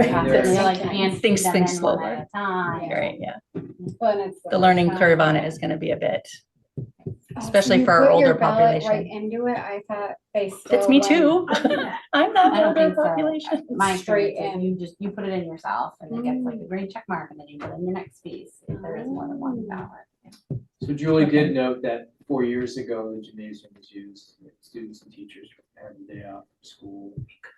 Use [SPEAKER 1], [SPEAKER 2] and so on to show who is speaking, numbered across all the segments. [SPEAKER 1] process,
[SPEAKER 2] Yeah.
[SPEAKER 1] you know, like you can't
[SPEAKER 3] Things-
[SPEAKER 1] do them
[SPEAKER 3] things
[SPEAKER 1] in one at
[SPEAKER 3] slower.
[SPEAKER 1] a Time.
[SPEAKER 3] Right, yeah.
[SPEAKER 1] Well, and it's
[SPEAKER 3] The learning curve on it is gonna be a bit, especially for our older
[SPEAKER 4] Right
[SPEAKER 3] population.
[SPEAKER 4] into it, I thought they still.
[SPEAKER 3] It's me
[SPEAKER 4] like-
[SPEAKER 3] too. I'm
[SPEAKER 1] I
[SPEAKER 3] not
[SPEAKER 1] don't
[SPEAKER 3] older
[SPEAKER 1] think so.
[SPEAKER 3] population.
[SPEAKER 1] My
[SPEAKER 4] Straight
[SPEAKER 1] straight and you just, you put it in yourself and it gets like a green check mark and then you put in the next piece. if There is more than one ballot.
[SPEAKER 2] So Julie did note that four years ago, the gymnasium was used, students and teachers had the day off from school.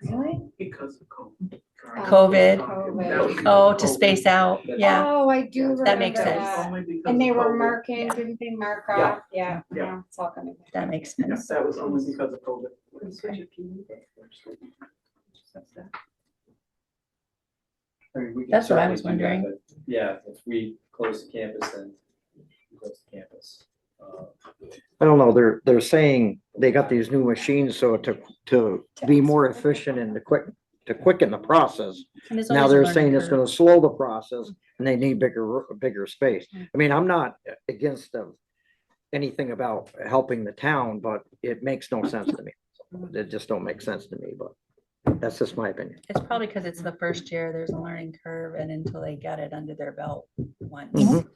[SPEAKER 4] Really?
[SPEAKER 2] Because of COVID.
[SPEAKER 3] COVID.
[SPEAKER 2] That was-
[SPEAKER 3] Oh, to space out, yeah.
[SPEAKER 4] Oh, I do remember
[SPEAKER 3] That makes sense.
[SPEAKER 4] that. And they were marking, didn't they mark
[SPEAKER 2] Yeah.
[SPEAKER 4] off? Yeah,
[SPEAKER 2] Yeah.
[SPEAKER 4] yeah, it's all coming. back.
[SPEAKER 3] That makes sense.
[SPEAKER 2] that was only because of COVID. I mean, we can
[SPEAKER 3] That's what I
[SPEAKER 2] certainly do
[SPEAKER 3] was
[SPEAKER 2] that,
[SPEAKER 3] wondering.
[SPEAKER 2] but, Yeah, if we close the campus, then we close the campus. Uh,
[SPEAKER 5] I don't know, they're, they're saying they got these new machines, so to, to be more efficient and to quick, to quicken the process.
[SPEAKER 3] And there's
[SPEAKER 5] Now
[SPEAKER 3] always a
[SPEAKER 5] they're
[SPEAKER 3] learning
[SPEAKER 5] saying it's
[SPEAKER 3] curve.
[SPEAKER 5] gonna slow the process and they need bigger, ro- bigger space. I mean, I'm not against them, anything about helping the town, but it makes no sense to me. It just don't make sense to me, but that's just my opinion.
[SPEAKER 3] It's probably because it's the first year, there's a learning curve and until they get it under their belt once.
[SPEAKER 5] Mhm.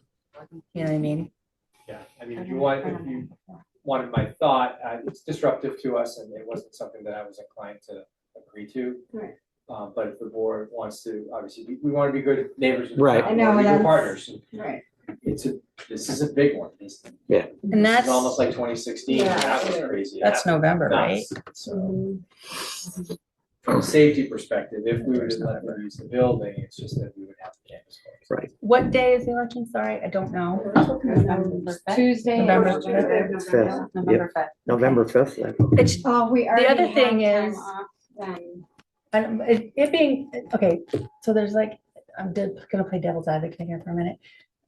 [SPEAKER 3] You know what I mean?
[SPEAKER 2] Yeah, I mean, if you want, if you wanted my thought, uh, it's disruptive to us and it wasn't something that I was inclined to agree to.
[SPEAKER 4] Right.
[SPEAKER 2] Uh, but if the board wants to, obviously, we, we want to be good neighbors. with the
[SPEAKER 5] Right.
[SPEAKER 2] town, we
[SPEAKER 4] I
[SPEAKER 2] wanna
[SPEAKER 4] know,
[SPEAKER 2] be good
[SPEAKER 4] that's-
[SPEAKER 2] Partners.
[SPEAKER 4] Right.
[SPEAKER 2] It's a, this is a big one. This this
[SPEAKER 3] And that's,
[SPEAKER 2] is almost like twenty sixteen.
[SPEAKER 4] Yeah.
[SPEAKER 2] That was crazy.
[SPEAKER 3] that's
[SPEAKER 2] That
[SPEAKER 3] November,
[SPEAKER 2] was
[SPEAKER 3] right?
[SPEAKER 2] nuts. So
[SPEAKER 4] Mm-hmm.
[SPEAKER 2] from a safety perspective, if we were to let them use the building, it's just that we would have the campus closed.
[SPEAKER 3] What day is the election? Sorry, I don't know.
[SPEAKER 1] November fifth.
[SPEAKER 4] Tuesday.
[SPEAKER 3] November
[SPEAKER 4] November fifth.
[SPEAKER 3] fifth.
[SPEAKER 5] Fifth.
[SPEAKER 1] November fifth.
[SPEAKER 5] November fifth,
[SPEAKER 3] It's,
[SPEAKER 4] Oh, we already
[SPEAKER 3] other
[SPEAKER 4] have
[SPEAKER 3] thing
[SPEAKER 4] time
[SPEAKER 3] is-
[SPEAKER 4] off then.
[SPEAKER 3] I don't- it, it being, okay, so there's like, I'm de- gonna play devil's advocate here for a minute.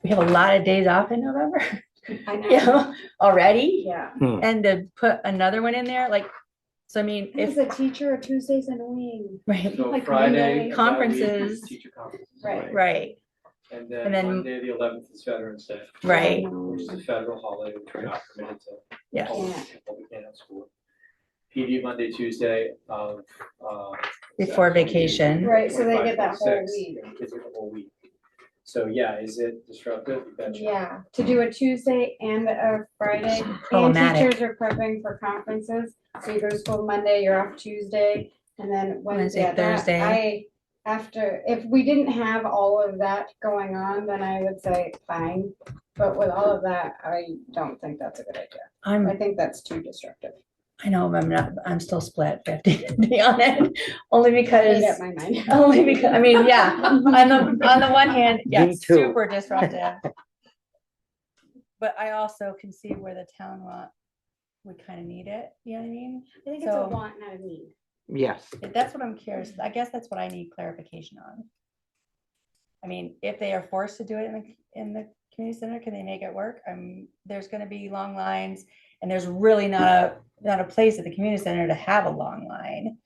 [SPEAKER 3] We have a lot of days off in November,
[SPEAKER 4] I know.
[SPEAKER 3] you know, already.
[SPEAKER 4] Yeah.
[SPEAKER 3] And to put another one in there, like, so I mean,
[SPEAKER 4] As
[SPEAKER 3] if,
[SPEAKER 4] a teacher, Tuesday's annoying.
[SPEAKER 3] right,
[SPEAKER 2] So
[SPEAKER 4] Like
[SPEAKER 2] Friday.
[SPEAKER 4] Monday.
[SPEAKER 3] Conferences.
[SPEAKER 2] Teacher conferences.
[SPEAKER 4] Right.
[SPEAKER 3] right,
[SPEAKER 2] And
[SPEAKER 3] And
[SPEAKER 2] then
[SPEAKER 3] then-
[SPEAKER 2] Monday, the eleventh is Veterans Day.
[SPEAKER 3] right.
[SPEAKER 2] Which is a federal holiday, which we're not permitted to.
[SPEAKER 3] Yeah.
[SPEAKER 2] hold people we can't at school. PD Monday, Tuesday, um, uh. is
[SPEAKER 3] Before
[SPEAKER 2] actually
[SPEAKER 3] vacation.
[SPEAKER 4] Right, so they get that
[SPEAKER 2] 25,
[SPEAKER 4] whole
[SPEAKER 2] 26,
[SPEAKER 4] week.
[SPEAKER 2] and Kids get the whole week. So, yeah, is it disruptive? You betcha.
[SPEAKER 4] Yeah, to do a Tuesday and a Friday, and
[SPEAKER 3] Problematic.
[SPEAKER 4] teachers are prepping for conferences, so you go to school Monday, you're off Tuesday, and then
[SPEAKER 3] Wednesday,
[SPEAKER 4] Wednesday. that-
[SPEAKER 3] Thursday.
[SPEAKER 4] I, after, if we didn't have all of that going on, then I would say fine, but with all of that, I don't think that's a good idea. I
[SPEAKER 3] I'm,
[SPEAKER 4] think that's too disruptive.
[SPEAKER 3] I know, I'm not, I'm still split fifty, to be honest, only
[SPEAKER 4] Made
[SPEAKER 3] because,
[SPEAKER 4] up my mind.
[SPEAKER 3] only because, I mean, yeah. On the, on the one hand, yeah,
[SPEAKER 5] Me too.
[SPEAKER 3] super disruptive. But I also can see where the town want, we kind of need it, you know what I mean?
[SPEAKER 4] I think it's a
[SPEAKER 3] So-
[SPEAKER 4] want, not a need.
[SPEAKER 5] yes.
[SPEAKER 3] That's what I'm curious, I guess that's what I need clarification on. I mean, if they are forced to do it in the, in the community center, can they make it work? Um, there's gonna be long lines, and there's really not a, not a place at the community center to have a long line.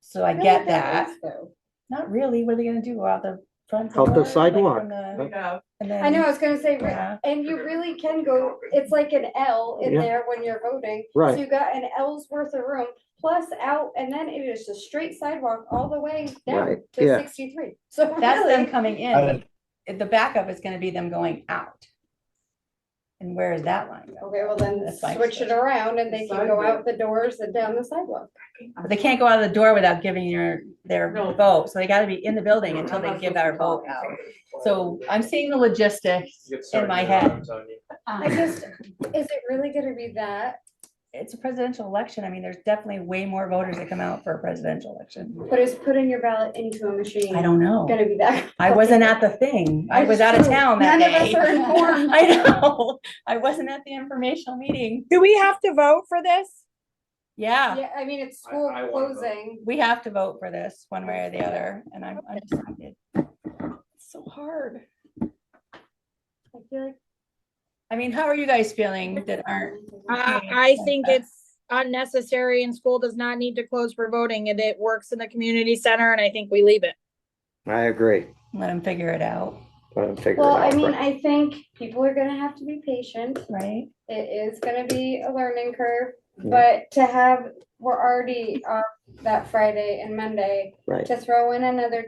[SPEAKER 3] So I
[SPEAKER 4] feel
[SPEAKER 3] get
[SPEAKER 4] like there
[SPEAKER 3] that,
[SPEAKER 4] is, though.
[SPEAKER 3] not really, what are they gonna do, go out the front?
[SPEAKER 5] Out the
[SPEAKER 3] door, like,
[SPEAKER 5] sidewalk.
[SPEAKER 3] from the- and
[SPEAKER 4] I know,
[SPEAKER 3] then-
[SPEAKER 4] I was gonna say,
[SPEAKER 3] Yeah.
[SPEAKER 4] And you really can go, it's like an L in
[SPEAKER 5] Yeah.
[SPEAKER 4] there when you're voting.
[SPEAKER 5] Right.
[SPEAKER 4] So you got an L's worth of room, plus out, and then it is a straight sidewalk all the way down
[SPEAKER 5] Right,
[SPEAKER 4] to
[SPEAKER 5] yeah.
[SPEAKER 4] sixty-three. So
[SPEAKER 3] That's them
[SPEAKER 4] really,
[SPEAKER 3] coming
[SPEAKER 5] I
[SPEAKER 3] in, but the backup is gonna be them going out. And where is that line going?
[SPEAKER 4] okay, well then
[SPEAKER 3] That's fine.
[SPEAKER 4] switch it around and they can go out the doors and down the sidewalk.
[SPEAKER 3] But They can't go out of the door without giving your, their
[SPEAKER 6] No.
[SPEAKER 3] vote, so they gotta be in the building until they give our vote out. So I'm seeing the logistics
[SPEAKER 2] You get
[SPEAKER 3] in my
[SPEAKER 2] sergeant
[SPEAKER 3] head.
[SPEAKER 2] arms on you.
[SPEAKER 4] I just, is it really gonna be that?
[SPEAKER 3] It's a presidential election, I mean, there's definitely way more voters that come out for a presidential election.
[SPEAKER 4] But is putting your ballot into a machine
[SPEAKER 3] I don't know,
[SPEAKER 4] gonna be that?
[SPEAKER 3] I wasn't at the thing, I was out of town that
[SPEAKER 4] None of us are
[SPEAKER 3] day.
[SPEAKER 4] informed.
[SPEAKER 3] I know, I wasn't at the informational meeting,
[SPEAKER 7] Do we have to vote for this?
[SPEAKER 3] yeah,
[SPEAKER 4] Yeah, I mean, it's
[SPEAKER 2] I-
[SPEAKER 4] school
[SPEAKER 2] I wanna vote.
[SPEAKER 4] closing.
[SPEAKER 3] we have to vote for this one way or the other, and I'm undecided. It's so hard.
[SPEAKER 4] I feel like
[SPEAKER 3] I mean, how are you guys feeling that aren't?
[SPEAKER 7] I,
[SPEAKER 3] Okay,
[SPEAKER 7] I
[SPEAKER 3] like
[SPEAKER 7] think
[SPEAKER 3] that.
[SPEAKER 7] it's unnecessary and school does not need to close for voting and it works in the community center and I think we leave it.
[SPEAKER 5] I agree.
[SPEAKER 3] Let them figure it out,
[SPEAKER 5] Let them figure it
[SPEAKER 4] Well, I
[SPEAKER 5] out.
[SPEAKER 4] mean, I think people are gonna have to be patient.
[SPEAKER 3] right?
[SPEAKER 4] It is gonna be a learning curve,
[SPEAKER 5] Yeah.
[SPEAKER 4] but to have, we're already off that Friday and Monday.
[SPEAKER 5] Right.
[SPEAKER 4] To throw in another